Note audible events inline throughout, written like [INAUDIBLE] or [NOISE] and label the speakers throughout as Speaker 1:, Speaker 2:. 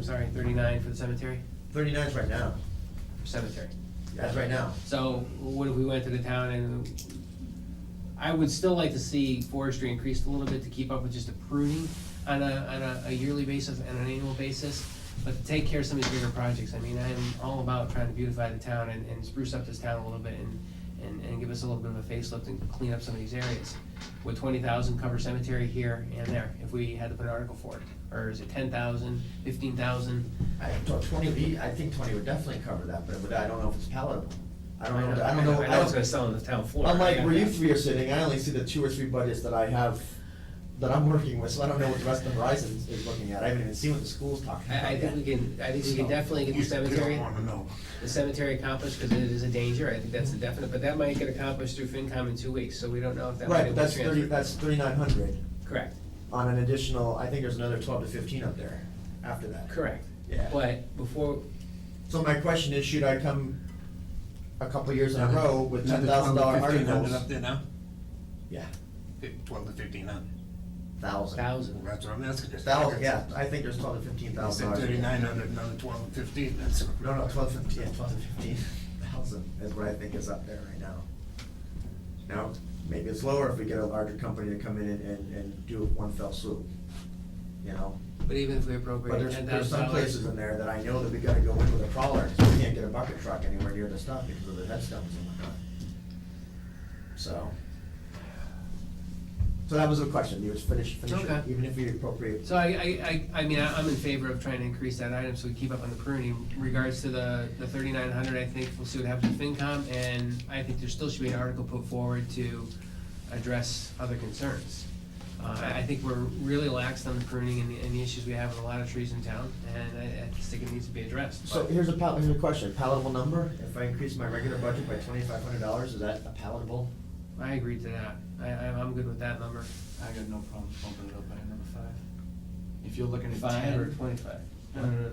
Speaker 1: sorry, thirty-nine for the cemetery,
Speaker 2: Thirty-nine's right now,
Speaker 1: for cemetery.
Speaker 2: that's right now.
Speaker 1: So what if we went to the town and, I would still like to see forestry increased a little bit to keep up with just the pruning on a, on a, a yearly basis and an annual basis. But to take care of some of these bigger projects, I mean, I'm all about trying to beautify the town and, and spruce up this town a little bit and, and, and give us a little bit of a facelift and clean up some of these areas. Would twenty thousand cover cemetery here and there if we had to put an article for it? Or is it ten thousand, fifteen thousand?
Speaker 2: I thought twenty would be, I think twenty would definitely cover that, but it would- I don't know if it's palatable. I don't know, I don't know.
Speaker 3: I know it's gonna sell on the town floor.
Speaker 2: Unlike
Speaker 3: Yeah.
Speaker 2: where you three are sitting, I only see the two or three budgets that I have, that I'm working with, so I don't know what the rest of Verizon is- is looking at. I haven't even seen what the school's talking about
Speaker 1: I, I think
Speaker 2: yet.
Speaker 1: we can, I think we can definitely get the cemetery. [LAUGHS] the cemetery accomplished, because it is a danger, I think
Speaker 2: Mm-hmm.
Speaker 1: that's a definite, but that might get accomplished through FinCom in two weeks, so we don't know if that
Speaker 2: Right,
Speaker 1: money
Speaker 2: but
Speaker 1: will
Speaker 2: that's
Speaker 1: transfer.
Speaker 2: thirty, that's thirty-nine hundred
Speaker 1: Correct,
Speaker 2: on an additional, I think there's another twelve to fifteen up there after that.
Speaker 1: correct.
Speaker 2: Yeah.
Speaker 1: But before,
Speaker 2: So my question is, should I come a couple years in a row with ten thousand dollar articles?
Speaker 4: Up there now?
Speaker 2: Yeah,
Speaker 4: Fif- Twelve to fifteen hundred.
Speaker 2: thousand.
Speaker 4: Well,
Speaker 1: thousand,
Speaker 4: that's what I'm asking. just-
Speaker 2: Thousand, yeah, I think there's twelve to fifteen
Speaker 4: You
Speaker 2: thousand
Speaker 4: said
Speaker 2: dollars.
Speaker 4: thirty-nine hundred, another twelve and fifteen, that's.
Speaker 2: No, no, twelve fifteen, yeah, twelve to fifteen thousand is what I think is up there right now. Now, maybe it's lower if we get a larger company to come in and, and, and do it one fell swoop, you know?
Speaker 1: but even if we
Speaker 2: But
Speaker 1: appropriate
Speaker 2: there's,
Speaker 1: ten
Speaker 2: there's
Speaker 1: thousand
Speaker 2: some
Speaker 1: dollars,
Speaker 2: places in there that I know that we gotta go in with a crawler, 'cause we can't get a bucket truck anywhere near the stuff because of the headstones and whatnot. So. So that was the question, you was finish, finish
Speaker 1: Okay.
Speaker 2: it, even if we appropriate.
Speaker 1: so I, I, I, I mean, I- I'm in favor of trying to increase that item, so we keep up on the pruning. In Regards to the, the thirty-nine hundred, I think, we'll see what happens with FinCom, and I think there still should be an article put forward to address other concerns. Uh, I I think we're really lax on the pruning and the, and the issues we have with a lot of trees in town, and I, I just think it needs to be addressed.
Speaker 2: So
Speaker 1: but-
Speaker 2: here's a pal, here's a question, palatable number, if I increase my regular budget by twenty-five hundred dollars, is that a palatable?
Speaker 1: I agree to that. I, I, I'm good with that number.
Speaker 5: I got no problem bumping it up by another five. If you're looking at ten
Speaker 1: Or
Speaker 5: or
Speaker 1: twenty-five?
Speaker 2: uh,
Speaker 1: No, no, no, no.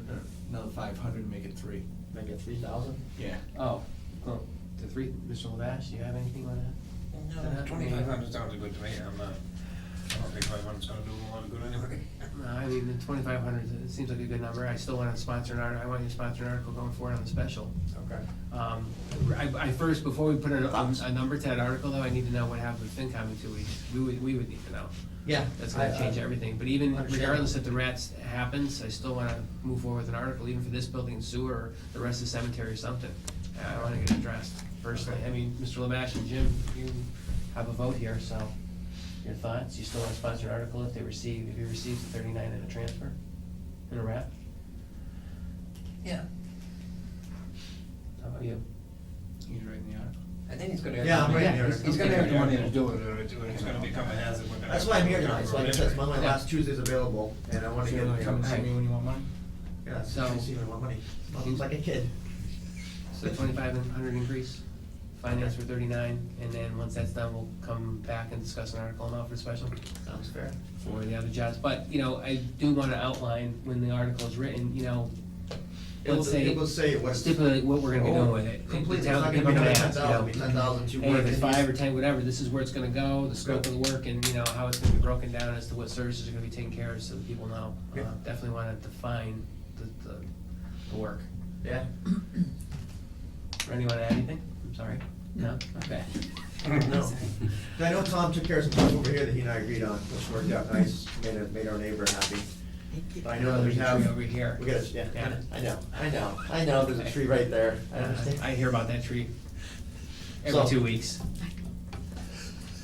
Speaker 5: another five hundred, make it three.
Speaker 2: Like a three thousand?
Speaker 5: Yeah.
Speaker 1: Oh, well, the three, Mr. Lavash, do you have anything on that?
Speaker 4: No, twenty-five hundred sounds good to me, I'm, uh, I don't think five hundred's gonna do a lot of good anyway.
Speaker 1: No, I mean, the twenty-five hundred, it seems like a good number. I still want to sponsor an article, I want you to sponsor an article going forward on the special.
Speaker 2: Okay.
Speaker 1: Um, I, I first, before we put a, a number to that article though, I need to know what happens with FinCom in two weeks. We would, we would need to know.
Speaker 2: Yeah.
Speaker 1: That's gonna
Speaker 2: I-
Speaker 1: change
Speaker 2: I-
Speaker 1: everything, but even
Speaker 2: Understand.
Speaker 1: regardless if the rats happens, I still wanna move forward with an article, even for this building and sewer, or the rest of the cemetery or something. I wanna get it addressed personally, I mean, Mr. Lavash and Jim, you have a vote here, so your thoughts, you still wanna sponsor an article if they receive, if he receives the thirty-nine in a transfer, in a wrap?
Speaker 4: Yeah,
Speaker 1: How about you?
Speaker 5: He's writing the article.
Speaker 4: I think he's gonna. have
Speaker 2: Yeah, I'm
Speaker 4: the
Speaker 2: right
Speaker 4: money-
Speaker 2: here.
Speaker 4: He's gonna have the money to do it, or it's, or it's gonna become a hazard. We're gonna
Speaker 2: That's
Speaker 4: have
Speaker 2: why I'm
Speaker 4: to-
Speaker 2: here tonight, so like I said, it's one of my last Tuesdays available, and I wanna
Speaker 5: So
Speaker 2: get,
Speaker 5: you're gonna come and see me when you want mine?
Speaker 2: yeah, so,
Speaker 1: So-
Speaker 2: see, I want money, Mom's like a kid.
Speaker 1: So twenty-five hundred increase, finance for thirty-nine, and then once that's done, we'll come back and discuss an article amount for special.
Speaker 2: Sounds fair.
Speaker 1: for the other jobs, but, you know, I do wanna outline when the article is written, you know,
Speaker 2: It will,
Speaker 1: let's say,
Speaker 2: it will say what.
Speaker 1: stipulate what we're gonna be doing with it.
Speaker 2: Completely, it's
Speaker 1: The town
Speaker 2: not
Speaker 1: can
Speaker 2: gonna be
Speaker 1: come
Speaker 2: ten
Speaker 1: and
Speaker 2: thousand,
Speaker 1: ask, you
Speaker 2: it'll be
Speaker 1: know,
Speaker 2: ten thousand two
Speaker 1: Hey,
Speaker 2: hundred.
Speaker 1: if it's five or ten, whatever, this is where it's gonna go, the scope of the work, and, you know, how it's gonna be broken down as to what services are gonna be taken care of, so that people know. Uh,
Speaker 2: Yeah.
Speaker 1: Definitely wanna define the, the, the work.
Speaker 2: Yeah.
Speaker 1: Randy, wanna add anything? I'm sorry. No? [LAUGHS] Okay.
Speaker 2: No. I know Tom took care of some stuff over here that he and I agreed on, which worked out nice, made, it- made our neighbor happy. But I know that we
Speaker 1: Mm-hmm. There's a
Speaker 2: have,
Speaker 1: tree Over here.
Speaker 2: we got a, yeah,
Speaker 1: Got it.
Speaker 2: I know, I know, I know, there's a tree right there, I understand.
Speaker 1: I hear about that tree every
Speaker 2: So-
Speaker 1: two weeks.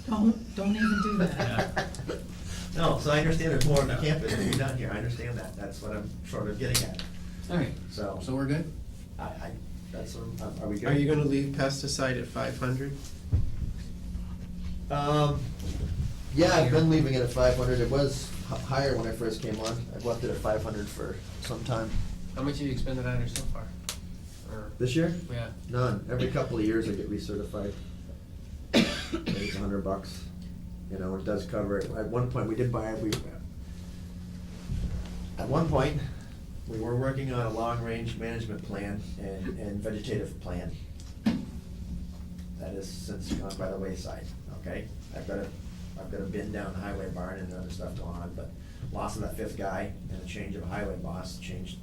Speaker 6: Don't, don't even do that.
Speaker 2: [LAUGHS] No, so I understand there's more on the campus than you're down here, I understand that, that's what I'm sort of getting at,
Speaker 1: All right,
Speaker 2: so,
Speaker 1: so we're good?
Speaker 2: I, I, that's, what I'm- are we good?
Speaker 7: Are you gonna leave pesticide at five hundred?
Speaker 2: Um, yeah, I've been leaving it at five hundred, it was h- higher when I first came on, I've left it at five hundred for some time.
Speaker 1: How much have you expended on her so far? Or,
Speaker 2: This year?
Speaker 1: yeah,
Speaker 2: None. Every couple of years I get recertified. I think It's a hundred bucks. You know, it does cover it. At one point, we did buy, we, at one point, we were working on a long-range management plan and, and vegetative plan. That has since gone by the wayside, okay? I've got a, I've got a bin down the highway barn and other stuff going on, but loss of that fifth guy and the change of a highway boss changed